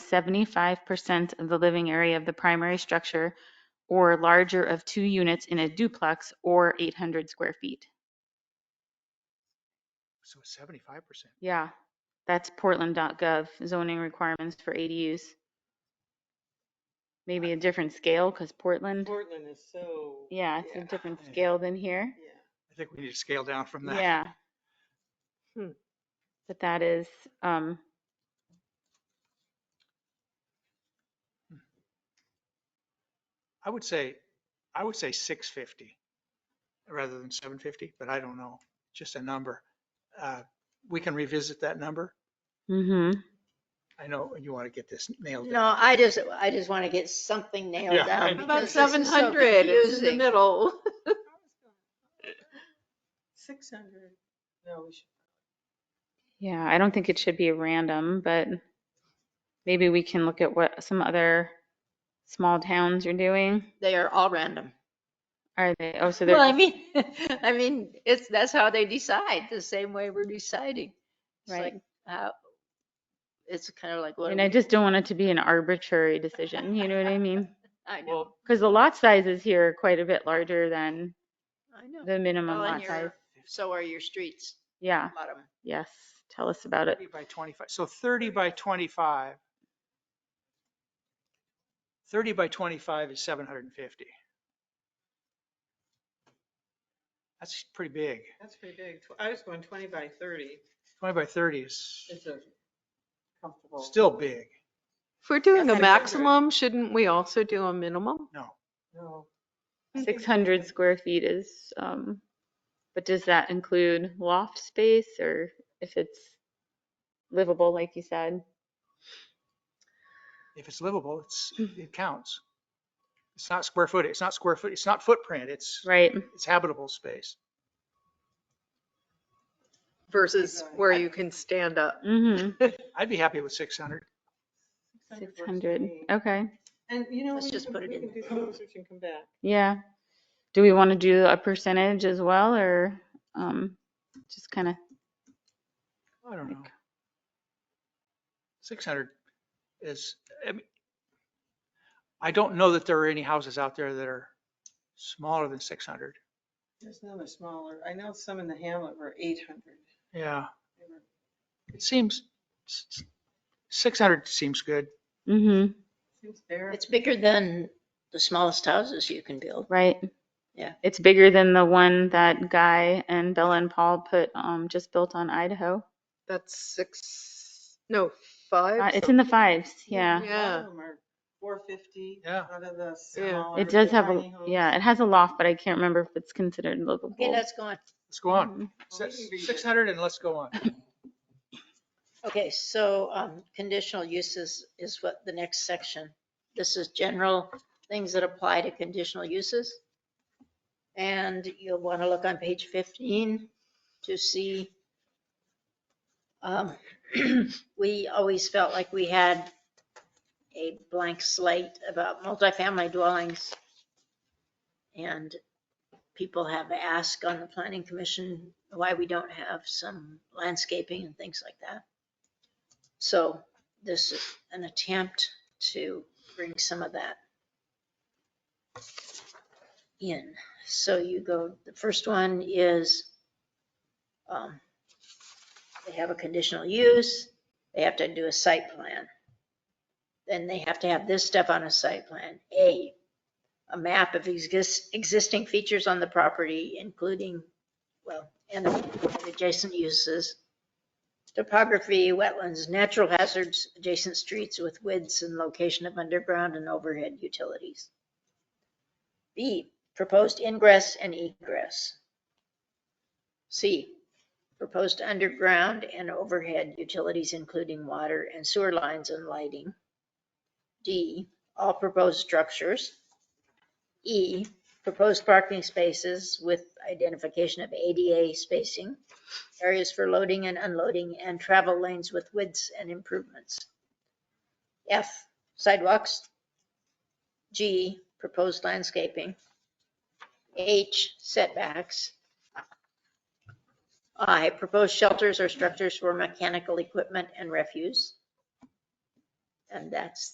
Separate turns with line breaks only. seventy-five percent of the living area of the primary structure or larger of two units in a duplex or eight hundred square feet.
So seventy-five percent.
Yeah, that's portland.gov zoning requirements for ADUs. Maybe a different scale because Portland,
Portland is so.
yeah, it's a different
yeah.
scale than here.
Yeah.
I think we need to scale down from that.
Yeah.
Hmm.
But that is, um,
I would say, I would say six fifty rather than seven fifty, but I don't know, just a number. Uh, We can revisit that number.
hmm
I know you want to get this nailed down.
No, I just, I just want to get something
Yeah,
nailed
I
down.
know.
About
because this is
seven
so
hundred, it's in the
confusing.
middle. Six hundred, no, we should.
yeah, I don't think it should be random, but maybe we can look at what some other small towns are doing.
They are all random.
Are they, oh, so
Well, I
they're,
mean, I mean, it's, that's how they decide, the same way we're deciding. It's
Right.
like, how, it's kind of like, what,
and I
do
just don't want it to be an arbitrary decision, you know what I mean?
we- I know,
Well,
Because the lot sizes here are quite a bit larger than
I know.
the minimum
Well, and
lot size.
your- So are your streets,
Yeah,
a lot of 'em.
yes, tell us about it.
thirty by twenty-five, so thirty by twenty-five. Thirty by twenty-five is seven hundred and fifty. That's pretty big.
That's pretty big. Tw- I was going twenty by thirty.
Twenty by thirty is
It's a comfortable.
still big.
If we're
Yes,
doing
I
a
agree.
maximum, shouldn't we also do a minimum?
No,
No.
Six hundred square feet is, um, but does that include loft space or if it's livable, like you said?
if it's livable, it's, it counts. It's not square foot, it's not square foot, it's not footprint, it's,
Right,
it's habitable space.
Versus where you can stand up.
mm-hmm,
I'd be happy with six hundred.
six
works for
hundred,
me.
okay,
And you know,
Let's
we
just
can,
put it
we
in
can do some research and come back.
yeah. Do we want to do a percentage as well or, um, just kind of,
I don't know. Six hundred is, I mean, I don't know that there are any houses out there that are smaller than six hundred.
There's none that are smaller. I know some in the hamlet were eight hundred.
Yeah, it seems, six hundred seems good.
mm-hmm,
Seems fair.
It's bigger than the smallest houses you can build.
right?
Yeah.
It's bigger than the one that Guy and Bella and Paul put, um, just built on Idaho.
That's six, no,
Uh,
five.
It's in the fives, yeah.
A lot
Yeah.
of them are four fifty.
Yeah.
Out of the
Yeah.
smaller.
It does have a,
tiny homes.
yeah, it has a loft, but I can't remember if it's considered livable.
Okay, let's go on.
Let's go on.
Mhm.
Well, we can read it.
Six hundred and let's go on.
Okay, so um, conditional uses is what the next section. This is general things that apply to conditional uses. And you'll want to look on page 15 to see. um, We always felt like we had a blank slate about multifamily dwellings. And people have asked on the planning commission why we don't have some landscaping and things like that. So this is an attempt to bring some of that in. So you go, the first one is, um, they have a conditional use, they have to do a site plan. Then they have to have this stuff on a site plan. A, a map of exist, existing features on the property, including, well, and adjacent uses topography, wetlands, natural hazards, adjacent streets with widths and location of underground and overhead utilities. B, proposed ingress and egress. C, proposed underground and overhead utilities including water and sewer lines and lighting. D, all proposed structures. E, proposed parking spaces with identification of ADA spacing areas for loading and unloading, and travel lanes with widths and improvements. F, sidewalks. G, proposed landscaping. H, setbacks. I, proposed shelters or structures for mechanical equipment and refuse. And that's